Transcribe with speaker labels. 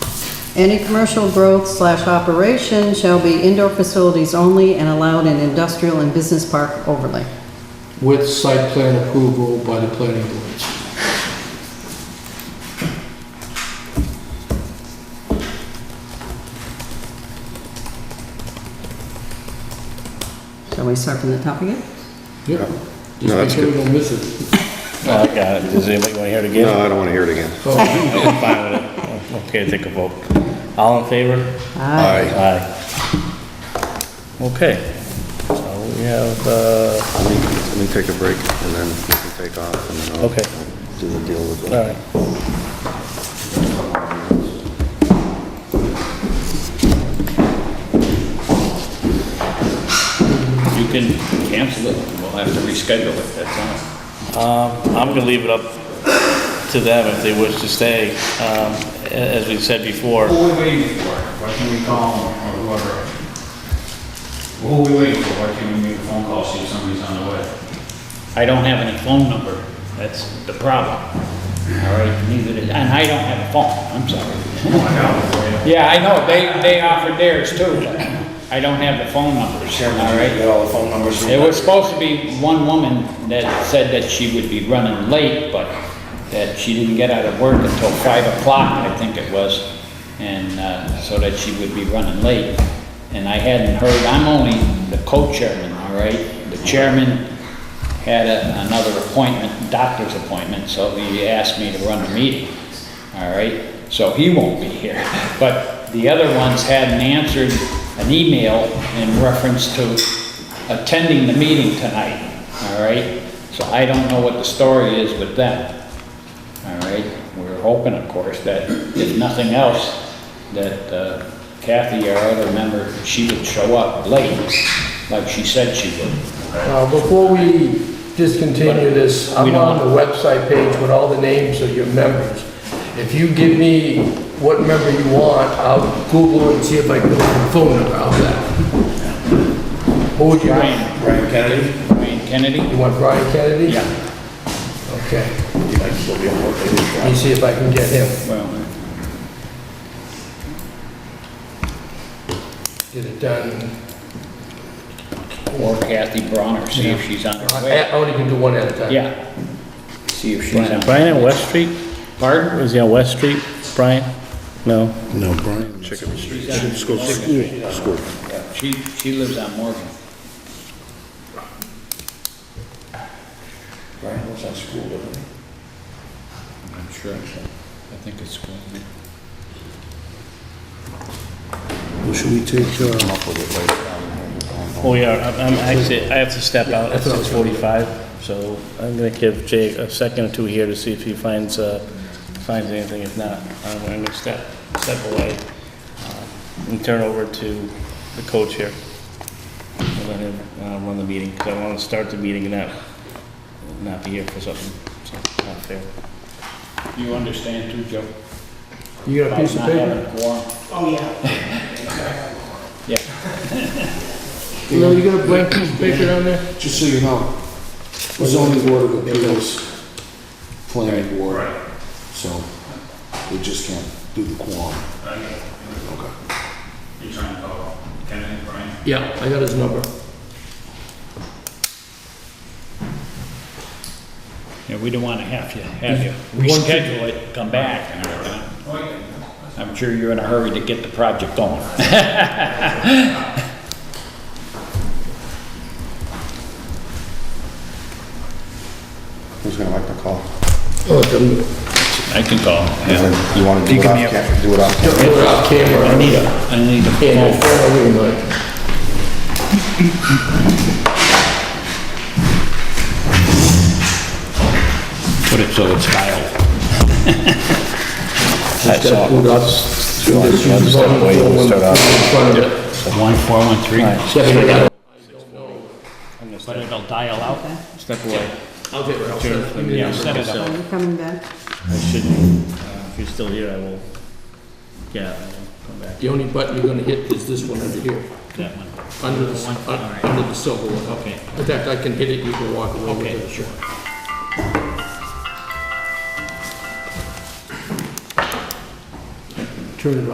Speaker 1: Any commercial growth slash operation shall be indoor facilities only and allowed in industrial and business park overlay.
Speaker 2: with site plan approval by the planning board.
Speaker 1: Shall we start from the top again?
Speaker 2: Yep. Just
Speaker 3: No,
Speaker 2: make
Speaker 3: that's
Speaker 2: sure we don't miss it.
Speaker 4: No, I got it. Does anybody want to hear it
Speaker 3: No,
Speaker 4: again?
Speaker 3: I don't want to hear it again.
Speaker 2: Oh,
Speaker 4: I'm fine with it. Okay, take a vote. All in favor?
Speaker 3: Aye.
Speaker 4: Aye. Okay. So we have, uh,
Speaker 3: Let me, let me take a break and then we can take off and then I'll
Speaker 4: Okay.
Speaker 3: do the deal with
Speaker 4: all
Speaker 3: it.
Speaker 4: right.
Speaker 5: You can cancel it, we'll have to reschedule it, that's all.
Speaker 4: Um, I'm going to leave it up to them if they wish to stay. Um, a- As we said before,
Speaker 6: What are we waiting for? Why can't we call them or whoever? What are we waiting for? Why can't we make a phone call, see if somebody's on the way?
Speaker 5: I don't have any phone number, that's the problem. All right, neither did, and I don't have a phone, I'm sorry.
Speaker 6: I got it for you.
Speaker 5: Yeah, I know, they, they offered theirs too, but I don't have the phone numbers, all right?
Speaker 6: Get all the phone numbers.
Speaker 5: There was supposed to be one woman that said that she would be running late, but that she didn't get out of work until five o'clock, I think it was, and, uh, so that she would be running late. And I hadn't heard, I'm only the co-chairman, all right? The chairman had a- another appointment, doctor's appointment, so he asked me to run the meeting, all right? So he won't be here, but the other ones hadn't answered an email in reference to attending the meeting tonight, all right? So I don't know what the story is with them, all right? We're hoping, of course, that if nothing else, that uh, Kathy, our other member, she would show up late, like she said she would.
Speaker 7: Uh, Before we discontinue this,
Speaker 5: We
Speaker 7: I'm
Speaker 5: don't-
Speaker 7: on the website page with all the names of your members. If you give me what member you want, I'll Google and see if I can find a phone number, how's that? Who would you want?
Speaker 5: Brian. Brian Kennedy? Brian Kennedy?
Speaker 7: You want Brian Kennedy?
Speaker 5: Yeah,
Speaker 7: Okay. Let me see if I can get him,
Speaker 5: well, uh,
Speaker 7: get it done.
Speaker 5: or Kathy Bronner, see if she's on her
Speaker 7: I
Speaker 5: way.
Speaker 7: I only can do one at a time.
Speaker 5: Yeah. See if she's on.
Speaker 4: Brian at West Street?
Speaker 5: Pardon?
Speaker 4: Was he on West Street, Brian? No?
Speaker 3: No, Brian. Chicken.
Speaker 5: She's on
Speaker 3: School.
Speaker 5: Morgan.
Speaker 3: School.
Speaker 5: Yeah, She, she lives on Morgan.
Speaker 6: Brian was on school, didn't he?
Speaker 5: I'm sure, I think it's school.
Speaker 3: Well, should we take, uh,
Speaker 4: Oh, yeah, I'm- I'm actually, I have to step out at 6:45, so I'm going to give Jake a second or two here to see if he finds, uh, finds anything. If not, I'm going to step, step away uh, and turn over to the co-chair. And Let him uh, run the meeting, because I want to start the meeting and not, not be here for something, so not fair.
Speaker 5: You understand too, Joe?
Speaker 7: You got a piece of
Speaker 5: Not
Speaker 7: paper?
Speaker 5: having a quorum.
Speaker 7: No, you got a blank piece of paper down there?
Speaker 2: Just so you know, the zoning board of appeals, planning board, so we just can't do the quorum.
Speaker 6: You trying to call Kennedy, Brian?
Speaker 7: Yeah, I got his number.
Speaker 5: Yeah, we don't want to have you, have you reschedule it, come back and everything. I'm sure you're in a hurry to get the project going.
Speaker 3: who's gonna like the call?
Speaker 7: Oh, done.
Speaker 5: I can call.
Speaker 3: You wanna do it off, cam- do it off? cam-
Speaker 7: Put it off camera.
Speaker 5: I need a, I need a
Speaker 7: Yeah, no,
Speaker 5: phone.
Speaker 7: fair enough, we might.
Speaker 5: Put it so it's dialed.
Speaker 7: Just gotta put it up. Just use the phone in front of it.
Speaker 5: One, four, one, three.
Speaker 7: Seven, eight, nine.
Speaker 5: But it'll dial out then?
Speaker 4: Step away.
Speaker 7: I'll get it, I'll set it.
Speaker 5: Yeah, set it up.
Speaker 1: Are you coming back?
Speaker 4: I shouldn't, uh, if you're still here, I will, yeah, I will come back.
Speaker 7: The only button you're gonna hit is this one under here,
Speaker 5: That one.
Speaker 7: under the, s- un- under the silver one.
Speaker 5: Okay.
Speaker 7: In fact, I can hit it, you can walk away with
Speaker 5: Okay.
Speaker 7: it. Sure. Turn it off.